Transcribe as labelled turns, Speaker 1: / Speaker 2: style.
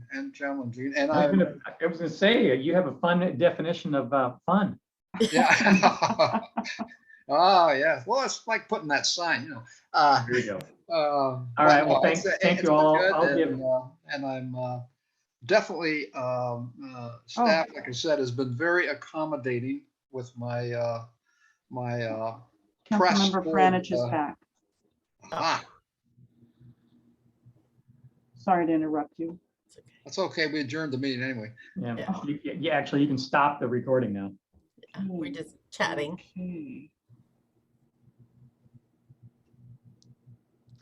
Speaker 1: and challenging, and
Speaker 2: I was
Speaker 1: I'm,
Speaker 2: gonna- I was gonna say, uh, you have a fun definition of uh, fun.
Speaker 1: yeah. Oh, yeah, well, it's like putting that sign, you know, uh, um,
Speaker 2: There you go.
Speaker 1: All
Speaker 2: All right, well, thank- thank you all. I'll give-
Speaker 1: And I'm uh, definitely, um,
Speaker 2: Oh.
Speaker 1: uh, staff, like I said, has been very accommodating with my, uh, my, uh, press
Speaker 3: Councilmember
Speaker 1: forward,
Speaker 3: Franich
Speaker 1: uh,
Speaker 3: is back.
Speaker 1: ah,
Speaker 3: Sorry to interrupt you.
Speaker 4: It's okay.
Speaker 1: that's okay, we adjourned the meeting anyway.
Speaker 2: Yeah,
Speaker 4: Yeah.
Speaker 2: you, you- yeah, actually, you can stop the recording now.
Speaker 4: Yeah, We're
Speaker 3: Hmm.
Speaker 4: just chatting.
Speaker 3: Okay.